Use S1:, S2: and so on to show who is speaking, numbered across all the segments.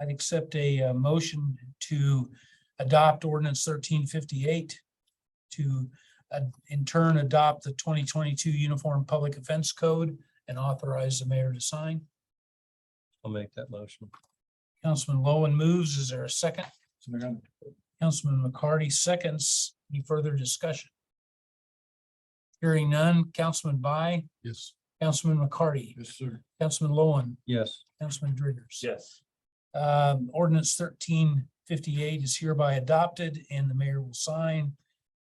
S1: I'd accept a uh, motion to adopt ordinance thirteen fifty-eight to uh, in turn adopt the twenty twenty-two Uniform Public Offense Code and authorize the mayor to sign.
S2: I'll make that motion.
S1: Councilman Lowen moves. Is there a second? Councilman McCarty seconds. Any further discussion? Hearing none. Councilman By,
S3: Yes.
S1: Councilman McCarty,
S3: Yes, sir.
S1: Councilman Lowen,
S2: Yes,
S1: Councilman Driggers.
S4: yes,
S1: Um, ordinance thirteen fifty-eight is hereby adopted and the mayor will sign.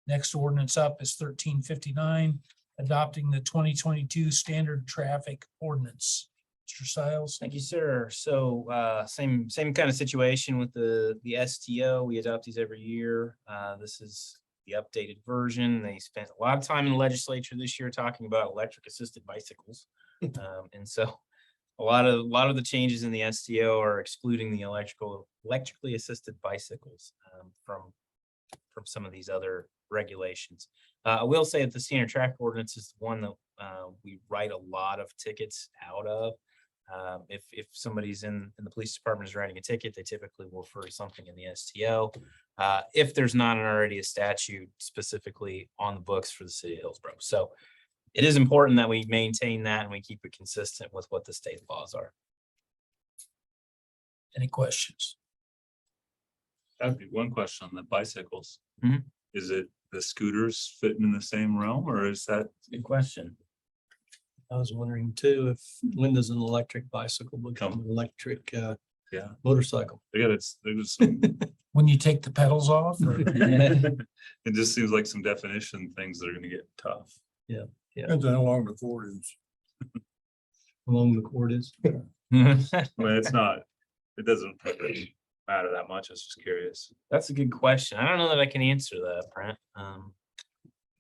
S1: Next ordinance up is thirteen fifty-nine, adopting the twenty twenty-two standard traffic ordinance. Mr. Stiles,
S4: thank you, sir. So uh, same, same kind of situation with the, the STO. We adopt these every year. Uh, This is the updated version. They spent a lot of time in the legislature this year talking about electric assisted bicycles. Um, And so a lot of, a lot of the changes in the STO are excluding the electrical, electrically assisted bicycles um, from, from some of these other regulations. Uh, I will say that the standard traffic ordinance is one that uh, we write a lot of tickets out of. Um, if, if somebody's in, in the police department is writing a ticket, they typically will refer to something in the STO. Uh, if there's not an already a statute specifically on the books for the city of Hillsborough. So it is important that we maintain that and we keep it consistent with what the state laws are.
S1: any questions?
S5: That'd be one question on the bicycles.
S4: Mhm.
S5: Is it the scooters fitting in the same realm or is that,
S4: Good question.
S2: I was wondering too, if when does an electric bicycle become
S5: Come.
S2: an electric uh
S5: yeah,
S2: motorcycle?
S5: I got it's, there's some.
S1: When you take the pedals off or?
S5: It just seems like some definition things that are gonna get tough.
S3: Depends on how long the cord is.
S2: Along the cord is,
S5: I mean, it's not, it doesn't really matter that much. I was just curious.
S4: That's a good question. I don't know that I can answer that, Brent. Um,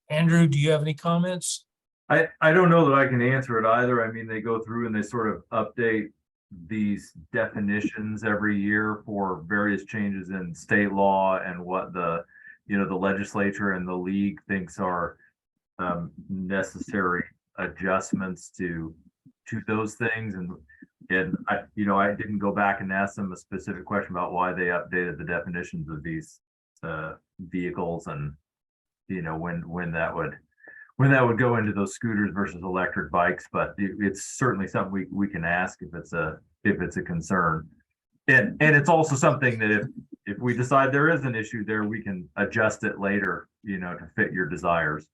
S1: Andrew, do you have any comments?
S6: I, I don't know that I can answer it either. I mean, they go through and they sort of update these definitions every year for various changes in state law and what the, you know, the legislature and the league thinks are um, necessary adjustments to, to those things. And, and I, you know, I didn't go back and ask them a specific question about why they updated the definitions of these uh, vehicles and, you know, when, when that would when that would go into those scooters versus electric bikes, but it, it's certainly something we, we can ask if it's a, if it's a concern. And, and it's also something that if, if we decide there is an issue there, we can adjust it later, you know, to fit your desires.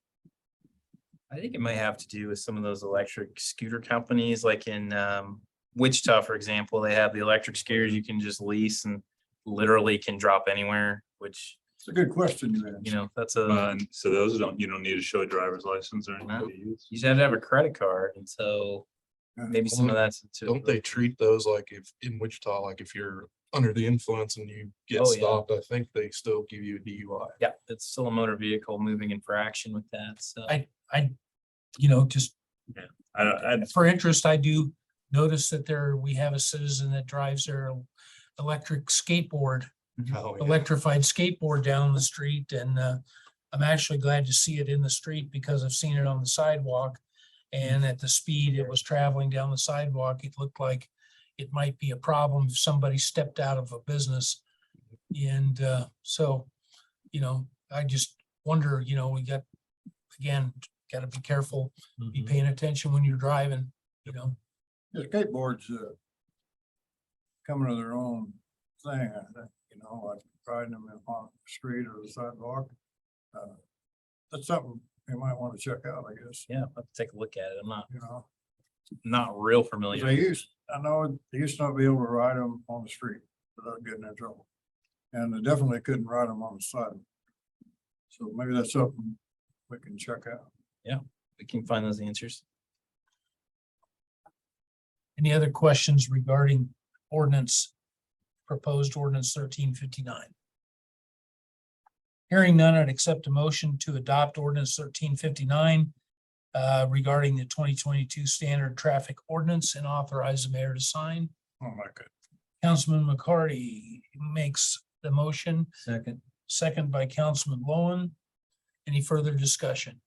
S4: I think it might have to do with some of those electric scooter companies, like in um, Wichita, for example, they have the electric scooters you can just lease and literally can drop anywhere, which,
S3: It's a good question you asked.
S4: you know, that's a,
S5: And so those don't, you don't need to show a driver's license or
S4: Uh, No.
S5: anything. to use.
S4: you just have to have a credit card. And so maybe some of that's. into
S7: Don't
S4: the-
S7: they treat those like if in Wichita, like if you're under the influence and you
S4: Oh,
S7: get
S4: yeah.
S7: stopped, I think they still give you a DUI.
S4: Yeah, it's still a motor vehicle moving infraction with that. So
S1: I, you know, just
S5: I don't, I,
S1: for interest, I do notice that there, we have a citizen that drives their electric skateboard,
S7: Oh, yeah.
S1: electrified skateboard down the street and uh, I'm actually glad to see it in the street because I've seen it on the sidewalk. And at the speed it was traveling down the sidewalk, it looked like it might be a problem if somebody stepped out of a business. And uh, so, you know, I just wonder, you know, we got, again, got to be careful be
S2: Mhm.
S1: paying attention when you're driving, you know,
S3: Yeah, Skateboards, uh, coming to their own thing, I think, you know, like riding them in on the street or the sidewalk. Uh, That's something you might want to check out, I guess,
S4: yeah, I'll have to take a look at it. I'm not,
S3: you know.
S4: not real
S3: 'Cause
S4: familiar.
S3: They used, I know, they used to not be able to ride them on the street without getting in trouble. And they definitely couldn't ride them on the side. So maybe that's something we can check out.
S4: We can find those answers.
S1: any other questions regarding ordinance, proposed ordinance thirteen fifty-nine? Hearing none, I'd accept a motion to adopt ordinance thirteen fifty-nine uh, regarding the twenty twenty-two standard traffic ordinance and authorize the mayor to sign.
S3: Oh, my God.
S1: Councilman McCarty makes the motion,
S2: Second,
S1: second by Councilman Lowen. Any further discussion?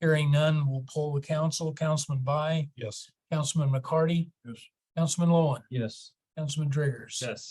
S1: Hearing none, we'll poll the council. Councilman By,
S7: Yes.
S1: Councilman McCarty.
S3: Yes.
S1: Councilman Lowen,
S2: yes.
S1: Councilman Driggers.
S5: yes.